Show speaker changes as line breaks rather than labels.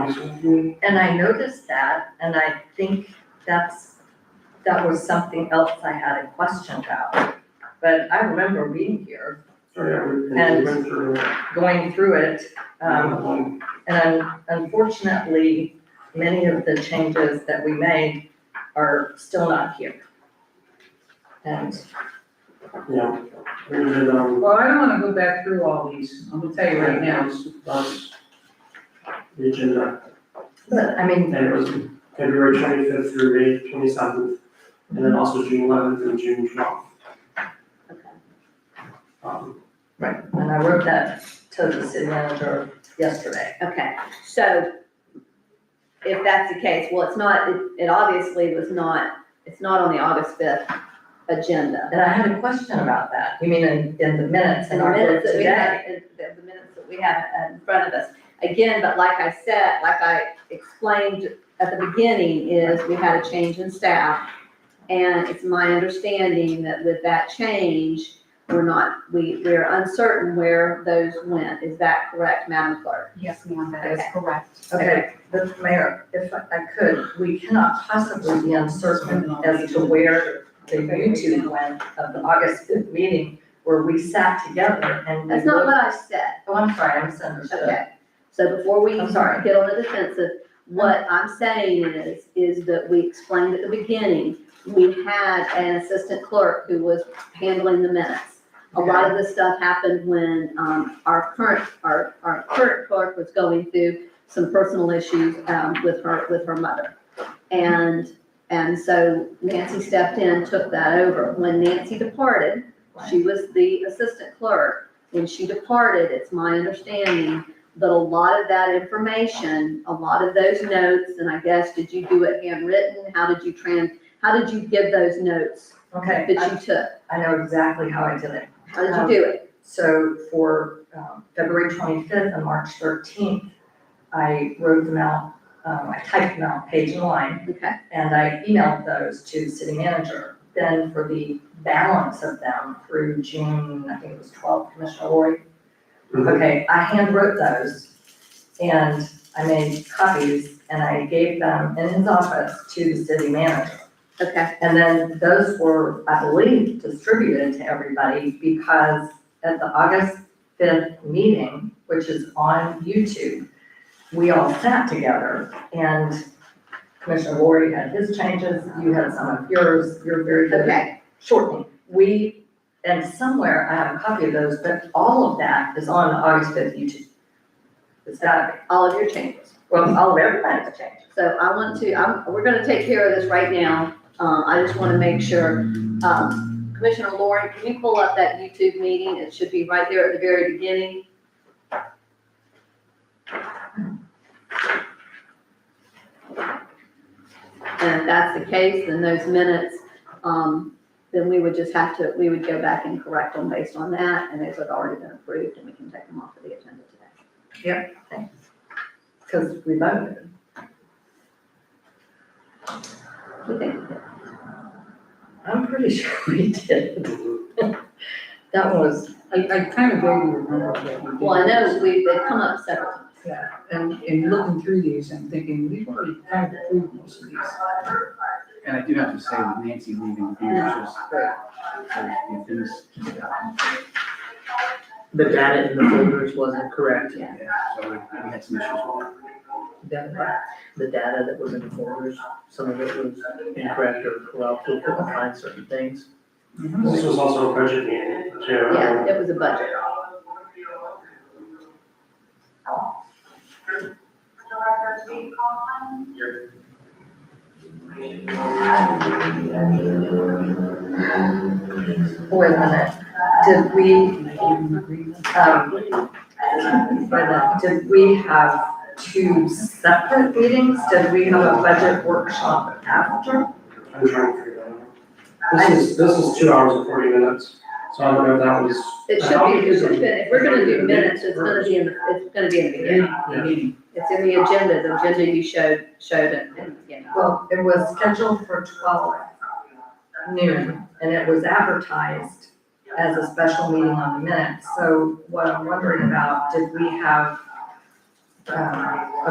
Lenore's.
And I noticed that, and I think that's, that was something else I had a question about. But I remember reading here,
Oh, yeah, we- we
And-
went through it.
going through it, um,
Um,
and unfortunately, many of the changes that we made are still not here. And
Yeah, we did, um,
Well, I don't wanna go back through all these, I'm gonna tell you right now,
that's the agenda,
But I mean,
and it was February twenty-fifth through May twenty-seventh, and then also June eleventh and June twelfth. Um,
right, and I wrote that to the city manager yesterday.
Okay, so if that's the case, well, it's not, it, it obviously was not, it's not on the August fifth agenda.
And I had a question about that. You mean in, in the minutes in
And the
our book
minutes that we
today?
have, the, the minutes that we have in front of us. Again, but like I said, like I explained at the beginning, is we had a change in staff. And it's my understanding that with that change, we're not, we, we're uncertain where those went. Is that correct, Madam Clerk?
Yes, ma'am, that is
Okay.
correct.
Okay, the mayor, if I I could, we cannot possibly be uncertain as to where the YouTube went of the August fifth meeting where we sat together and we
That's not
looked.
what I said.
Oh, I'm sorry, I misunderstood.
Okay, so before we
I'm sorry.
start, get on the defensive, what I'm saying is, is that we explained at the beginning, we had an assistant clerk who was handling the minutes. A lot of this stuff happened when, um, our current, our, our current clerk was going through some personal issues, um, with her, with her mother. And, and so Nancy stepped in, took that over. When Nancy departed, she was the assistant clerk. When she departed, it's my understanding but a lot of that information, a lot of those notes, and I guess, did you do it handwritten? How did you trans, how did you give those notes
Okay,
that you took?
I, I know exactly how I did it.
How did you do it?
So for um, February twenty-fifth and March thirteenth, I wrote them out, um, I typed them out page and line.
Okay,
And I emailed those to the city manager. Then for the balance of them through June, I think it was twelve, Commissioner Lori.
mhm.
Okay, I handwrote those and I made copies and I gave them in his office to the city manager.
okay,
And then those were, I believe, distributed to everybody because at the August fifth meeting, which is on YouTube, we all sat together and Commissioner Lori had his changes, you had some of yours, you're very good at
okay,
shortening. We, and somewhere I have a copy of those, but all of that is on the August fifth YouTube. It's gotta be,
all of your changes.
well, all of everybody's changes.
So I want to, I'm, we're gonna take care of this right now. Um, I just wanna make sure, um, Commissioner Lauren, can you pull up that YouTube meeting? It should be right there at the very beginning. And if that's the case, then those minutes, um, then we would just have to, we would go back and correct them based on that, and those have already been approved, and we can take them off of the agenda today.
Cause we voted.
We think we did.
I'm pretty sure we did. That was,
I, I kind of vaguely remember that we did.
Well, I know we've, they've come up several times.
Yeah, and, and looking through these, I'm thinking, we've already kind of approved most of these.
And I do have to say with Nancy leaving, it was just, it was-
the data in the folders wasn't correct,
Yeah.
yeah, so we we had some issues.
the, the data that was in the folders, some of it was incorrect or corrupt, we couldn't find certain things.
This was also a budget meeting, too.
Yeah, it was a budget.
wait a minute, did we, um, wait a minute, did we have two separate meetings? Did we have a budget workshop after?
I'm trying to figure that out. This is, this is two hours and forty minutes, so I don't know if that was.
It should be, it should be, if we're gonna do minutes, it's gonna be in, the it's gonna be in the beginning.
Yeah.
Meeting.
It's in the agenda, the agenda you showed, showed it in the beginning.
Well, it was scheduled for twelve noon, and it was advertised as a special meeting on the minutes. So what I'm wondering about, did we have, um, a